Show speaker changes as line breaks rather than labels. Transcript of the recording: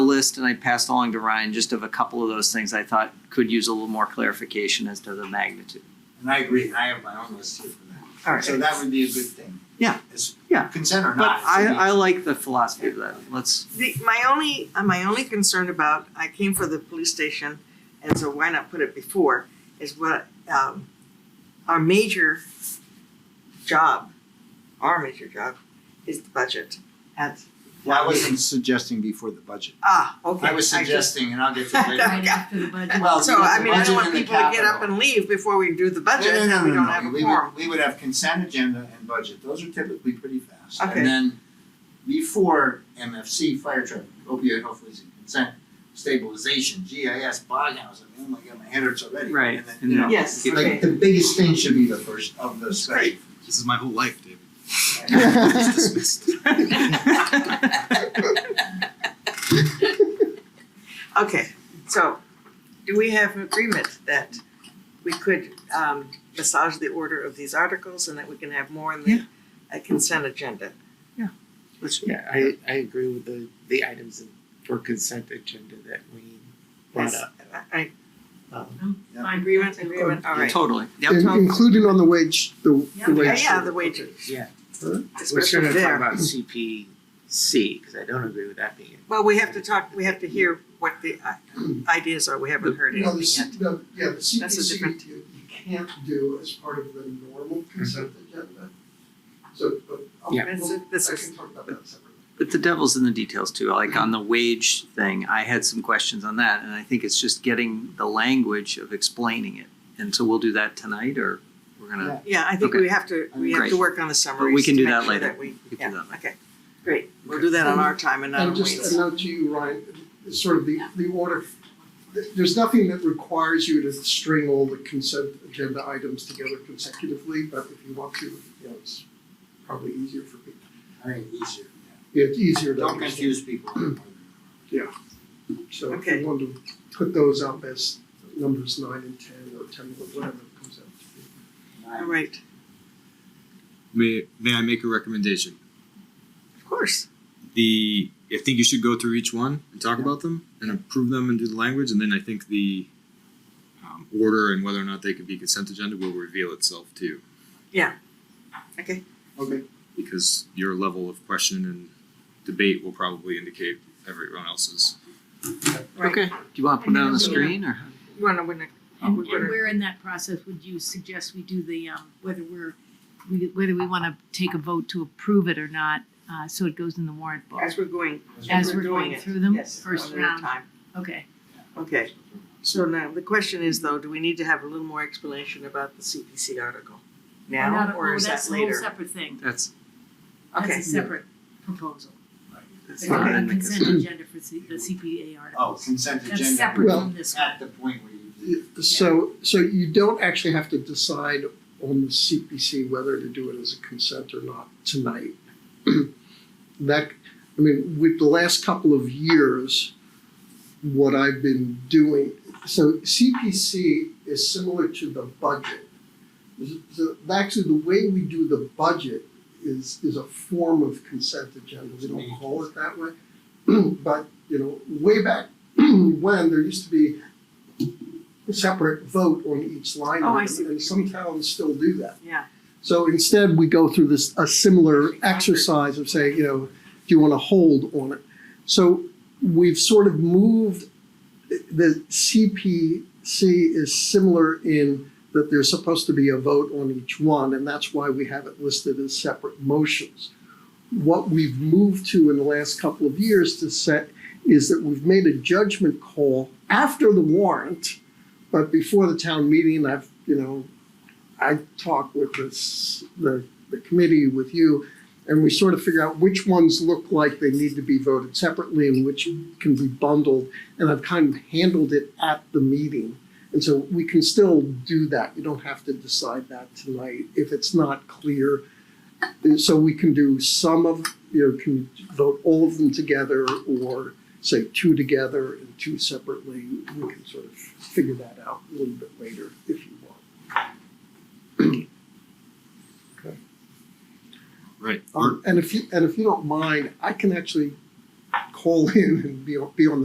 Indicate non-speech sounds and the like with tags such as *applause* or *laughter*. list and I passed along to Ryan just of a couple of those things I thought could use a little more clarification as to the magnitude.
And I agree, I have my own list here for that.
All right.
So that would be a good thing.
Yeah.
It's
Yeah.
Consent or
But
not.
I, I like the philosophy of that. *laughs* Let's,
The, my only, uh, my only concern about, I came for the police station, and so why not put it before, is what, um, our major job, our major job is the budget. And,
I wasn't suggesting before the budget.
ah, okay.
I was
just-
suggesting, and I'll get to it later.
Right after the budget.
Well,
So, I mean, I
budget
don't want
and the
people to get up
capital.
and leave before we do the *laughs* budget,
No, no,
and we
no, no,
don't
no.
have a
We
quorum.
would, we would have consent agenda and budget, those are typically pretty fast.
Okay.
And then before MFC, fire truck, opioid, hopefully it's in consent, stabilization, GIS, bog house, I mean, oh my god, my head hurts already.
Right,
And then,
and
you
then-
know,
Yes,
Keep-
okay.
like the biggest thing should be the first of the *laughs*
*laughs*
special.
This is my whole life, David. It's
All
dismissed.
Okay, so do we have an agreement that we could um massage the order of these articles and that we can have more in the uh, consent agenda?
let's,
Yeah, I, I agree with the, the items in- for consent agenda that we brought
Yes.
up.
I- I-
Um,
My
Agreement, agreement, uh, all right.
totally. Yep.
In- Including on the wage, the,
Yeah.
the
Yeah,
wage.
yeah, the wages,
Yeah, we're still
especially
gonna talk
there.
about CPC, cause I don't agree with that being.
Well, we have to talk, we have to hear what the uh, ideas are, we haven't heard
No, the,
anything
C-
yet.
the, yeah, the
That's a different-
CPC, you, you can't do as part of the normal consent agenda. So, but I'll,
Yeah.
That's
we'll-
a- this
I
is-
can talk about that separately.
But the devil's in the details too. Like on the wage thing, I had some questions on that, and I think it's just getting the language of explaining it. And so we'll do that tonight, or we're gonna
Yeah, I think
Okay.
we have to, we have
Great.
to work on the summaries
we can
to
do
make
that
sure
later.
that we,
we can
yeah,
do that.
okay, great. We'll do that on our time and not on
And just
Wayne's.
a note to you, Ryan, sort of the, the order, th- there's nothing that requires you to string all the consent agenda items together consecutively, but if you want to, you know, it's probably easier for people.
right, easier,
Yeah, It's easier
yeah.
to
Don't
understand,
confuse people.
*clears throat*
so if
Okay.
you want to put those up as numbers nine and ten or ten, or whatever it comes out to be.
All right,
May May I make a recommendation?
of course,
The I think you should go through each one and talk about them and approve them and do the language, and then I think the um, order and whether or not they could be consent agenda will reveal itself too,
okay.
Okay.
because your level of question and debate will probably indicate everyone else's.
Right.
Okay. Do you want to put it on the screen or?
You wanna win it?
And
We're gonna-
and where in that process would you suggest we do the, um, whether we're, we- whether we wanna take a vote to approve it or not, uh, so it goes in the warrant book?
As we're going.
As we're going
it.
through them,
Yes,
first
one at a
round.
time.
Okay,
Okay, so now the question is though, do we need to have a little more explanation about the CPC article? Now
Not a-
or
oh,
is that
that's a whole
later?
separate thing,
That's
that's
Okay,
a separate proposal.
that's not
The
in the
Consent
consent.
agenda for C- the CPA
Oh,
articles,
consent agenda.
that's separate
Well-
from this one.
At the point where you.
So, so you don't actually have to decide on the CPC whether to do it as a consent or not tonight. *clears throat* That, I mean, with the last couple of years, what I've been doing, so CPC is similar to the budget. So actually, the way we do the budget is, is a form of consent agenda. We don't call it that way. *clears throat* But, you know, way back *clears throat* when, there used to be separate vote on each line
Oh, I
item,
see.
and some towns still do that.
yeah,
So instead, we go through this, a similar exercise of saying, you know, do you want to hold on it? So we've sort of moved, the CPC is similar in that there's supposed to be a vote on each one, and that's why we have it listed as separate motions. What we've moved to in the last couple of years to set is that we've made a judgment call after the warrant, but before the town meeting, I've, you know, I talk with this, the, the committee, with you, and we sort of figure out which ones look like they need to be voted separately and which can be bundled. And I've kind of handled it at the meeting. And so we can still do that. You don't have to decide that tonight if it's not clear. And So we can do some of, you know, can vote all of them together or say two together and two separately. We can sort of figure that out a little bit later if you want.
Right.
Um, and if you, and if you don't mind, I can actually call in and be, on- be on the